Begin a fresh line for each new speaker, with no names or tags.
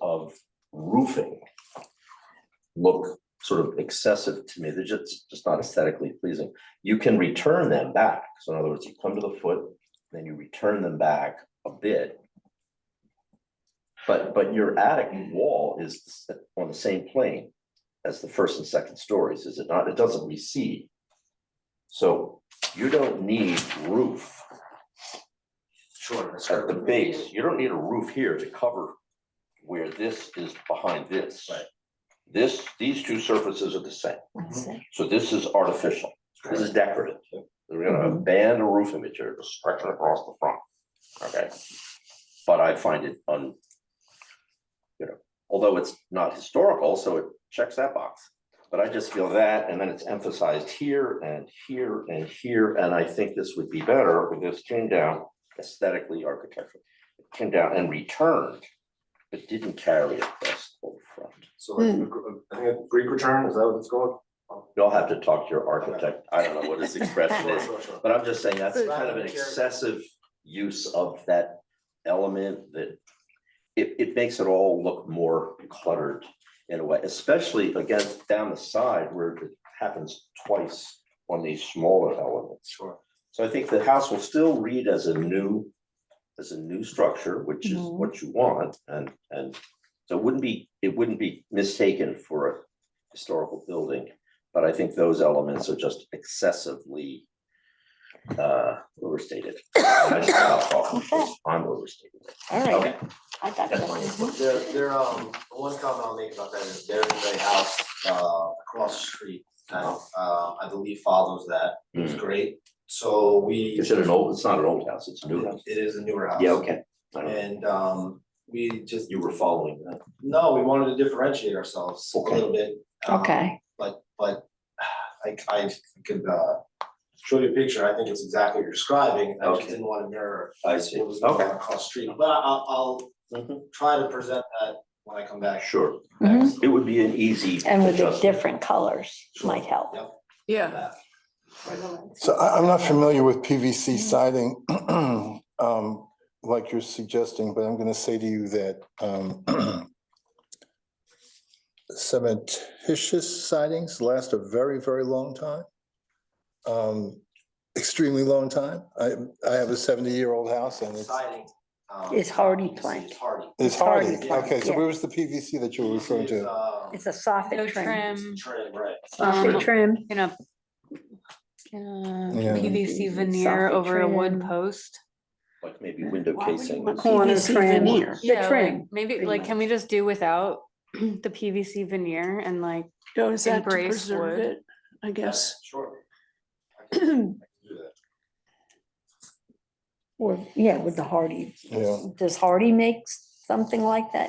of roofing look sort of excessive to me. They're just, just not aesthetically pleasing. You can return them back. So in other words, you come to the foot, then you return them back a bit. But, but your attic wall is on the same plane as the first and second stories, is it not? It doesn't recede. So you don't need roof
Sure.
at the base, you don't need a roof here to cover where this is behind this.
Right.
This, these two surfaces are the same,
I see.
so this is artificial, this is decorative. They're gonna
Mhm.
ban a roofing material, just stretch it across the front, okay? But I find it un, you know, although it's not historical, so it checks that box. But I just feel that, and then it's emphasized here and here and here, and I think this would be better if this came down aesthetically, architecturally. It Came down and returned, but didn't carry across the whole front.
So like, a gr- I think a Greek return, is that what it's called?
You'll have to talk to your architect, I don't know what his expression
Sure,
is,
sure, sure.
But I'm just saying that's
So-
kind of an excessive use of that element that it, it makes it all look more cluttered in a way, especially against down the side where it happens twice on these smaller elements.
Sure.
So I think the house will still read as a new, as a new structure, which is
Mhm.
what you want and, and so it wouldn't be, it wouldn't be mistaken for a historical building. But I think those elements are just excessively uh, overstated. I should stop talking because I'm overstated.
All right,
Okay,
I got
that's
that.
fine.
There, there, um, one comment I'll make about that is there is a house, uh, across the street, that, uh, I believe follows that. It's
Mm.
great. So we,
Is it an old, it's not an old house, it's a new
it
house.
is a newer house.
Yeah, okay. I don't-
And, um, we just,
You were following that.
no, we wanted to differentiate ourselves a
Okay.
little bit. um,
Okay,
but but I I could uh show you a picture, I think it's exactly what you're describing, I just
Okay.
didn't wanna mirror
I
what was going on across the street, but I I'll
Mhm.
I'll try to present that when I come back.
Sure.
Mhm.
Mm-hmm. It would be an easy.
and with the
adjustment.
different colors might help.
Yep.
Yeah,
So I, I'm not familiar with PVC siding, um, like you're suggesting, but I'm gonna say to you that, um, cementitious sidings last a very, very long time. Um, extremely long time. I, I have a seventy-year-old house and it's,
Siding. um,
It's hardy
it's-
plank.
It's hardy.
it's
hardy,
hardy. Okay, so
yeah.
where was the PVC that you were referring
It's,
to?
um,
It's a soffit
No
trim.
trim,
Trim, right.
Soffit
um,
trim.
in a in a
Yeah.
PVC veneer
Soffit
over a wood
trim.
post.
Like maybe window
Why would you
casing.
want
Corner
PVC
trim.
veneer?
Yeah,
The
like,
trim.
Maybe,
pretty
like, can we
much.
just do without the PVC veneer and like,
No, is that to
Embrace
preserve
wood.
it, I guess.
Sure. I can I can do that.
Or, yeah, with the hardy.
Yeah.
Does Hardy make something like that?